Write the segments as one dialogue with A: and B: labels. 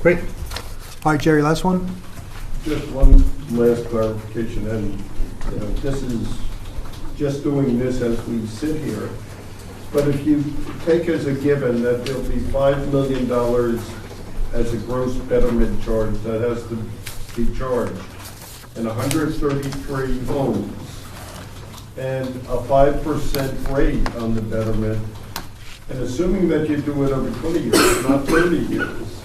A: Great. All right, Jerry, last one?
B: Just one last clarification, and, you know, this is just doing this as we sit here. But if you take as a given that there'll be five million dollars as a gross betterment charge that has to be charged, and hundred thirty-three homes, and a five percent rate on the betterment, and assuming that you do it over twenty years, not thirty years,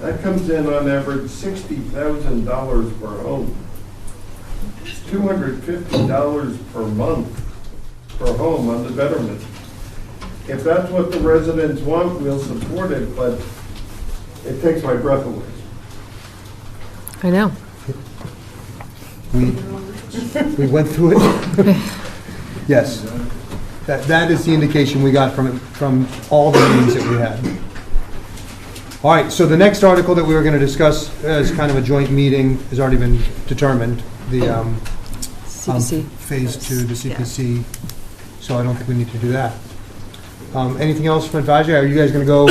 B: that comes in on average sixty thousand dollars per home. It's two hundred fifty dollars per month per home on the betterment. If that's what the residents want, we'll support it, but it takes my breath away.
C: I know.
A: We, we went through it. Yes. That, that is the indication we got from, from all the meetings that we had. All right, so the next article that we were going to discuss as kind of a joint meeting has already been determined, the, um, um,
C: CPC.
A: Phase two, the CPC, so I don't think we need to do that. Um, anything else from advisory? Are you guys going to go,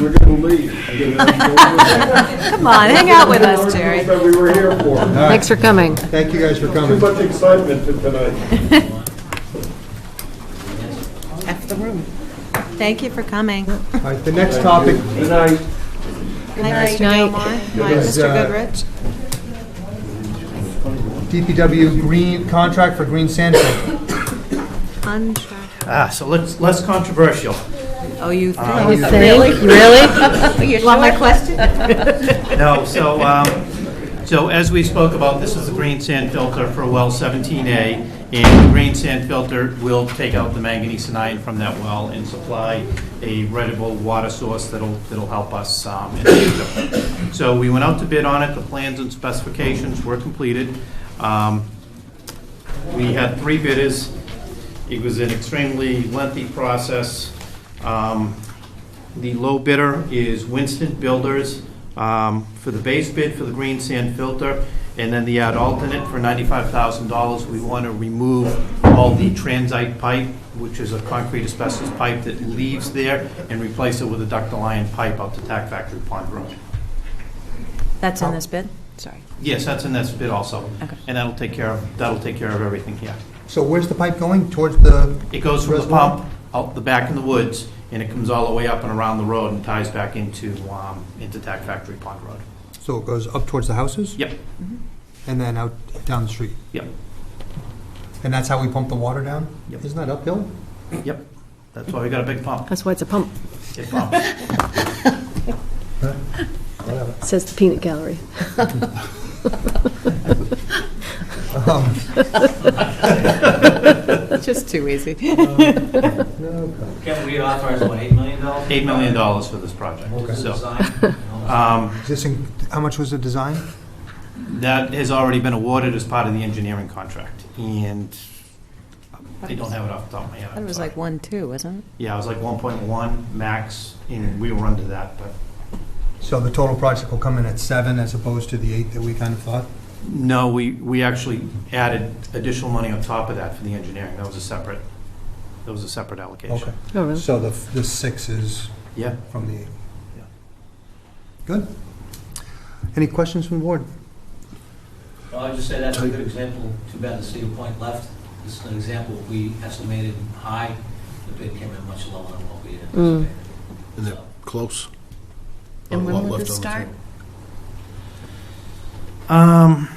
B: We're gonna leave. you know,
C: Come on, hang out with us,
B: That's
C: Jerry.
B: what we were here for.
C: Thanks for coming.
A: thank you guys for
B: Too
A: coming.
B: much excitement for tonight.
D: F the room. Thank you for coming.
A: All right, the next topic
D: Good night, Mr.
C: Night.
D: Gilmore. Hi,
A: Yes,
D: Mr.
A: uh,
D: Goodrich.
A: DPW green, contract for green sand pit.
D: Untra-
E: Ah, so let's, less controversial.
D: Oh, you
C: Uh, You
D: think?
C: Really? Really?
D: You want my question?
E: No, so, um, so as we spoke about, this is the green sand filter for well 17A, and the green sand filter will take out the manganese and iron from that well and supply a readable water source that'll, that'll help us um, in the future. So we went out to bid on it, the plans and specifications were completed. Um, We had three bidders. It was an extremely lengthy process. Um, The low bidder is Winston Builders um, for the base bid for the green sand filter, and then the ad alternate for $95,000. We want to remove all the transite pipe, which is a concrete asbestos pipe that leaves there, and replace it with a ductile iron pipe out to Tac Factory Pond Road.
D: That's in this bid? Sorry.
E: Yes, that's in this bid also.
D: Okay.
E: And that'll take care of, that'll take care of everything here.
A: So where's the pipe going? Towards the,
E: It goes from the
A: Reservoir?
E: pump out the back in the woods, and it comes all the way up and around the road and ties back into, um, into Tac Factory Pond Road.
A: so it goes up towards the houses? Mm-hmm.
E: Yep,
A: And then out down the street?
E: yep,
A: And that's how we pump the water down?
E: Yep.
A: Isn't that uphill?
E: yep. That's why we got a big pump.
C: That's why it's a pump.
E: It pumps.
A: Whatever.
C: Says the peanut gallery.
A: Um,
D: Just too easy.
A: no, okay.
F: Kevin, we authorized, what, $8 million?
E: Eight million dollars for this project, so. um,
A: Is this in- How much was the design?
E: That has already been awarded as part of the engineering contract, and I don't have it off the top of my head.
D: I thought it was
E: I'm
D: like
E: sorry.
D: one, two, wasn't it?
E: Yeah, it was like one point one max, and we were under that, but
A: So the total project will come in at seven as opposed to the eight that we kind of thought?
E: No, we, we actually added additional money on top of that for the engineering. That was a separate, that was a separate
A: Okay.
E: allocation.
C: Oh, really?
A: So the, the six is
E: Yeah.
A: from the eight?
E: Yeah.
A: Good. Any questions from the board?
F: Well, I'd just say that's a good example, too bad the Cedar Point left. This is an example, we estimated high, the bid came in much lower than what we had
C: Mm.
F: anticipated.
G: And they're
F: So,
G: close.
D: And
G: Not a
D: when
G: lot
D: will
G: left
D: this
G: on the
D: start?
G: table.
E: Um,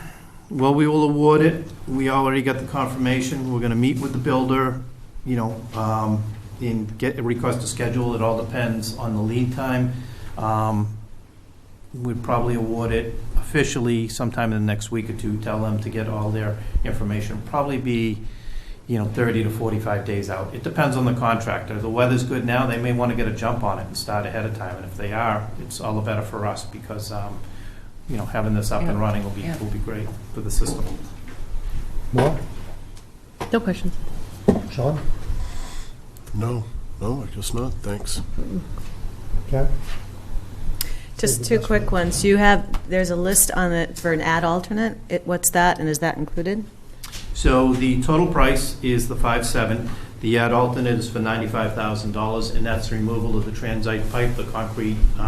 E: well, we will award it. We already got the confirmation. We're gonna meet with the builder, you know, um, and get, request a schedule. It all depends on the lead time. Um, we'd probably award it officially sometime in the next week or two, tell them to get all their information. Probably be, you know, thirty to forty-five days out. It depends on the contractor. The weather's good now, they may wanna get a jump on it and start ahead of time. And if they are, it's all the better for us because, um, you know, having this up and
D: Yeah.
E: running will be,
D: Yeah.
E: will be great for the system.
A: More?
C: No questions.
A: Sean?
G: No, no, I guess not, thanks.
A: Karen?
D: Just two quick ones. You have, there's a list on it for an ad alternate. It- What's that, and is that included?
E: So the total price is the five-seven. The ad alternate is for ninety-five thousand dollars, and that's the removal of the transite pipe, the concrete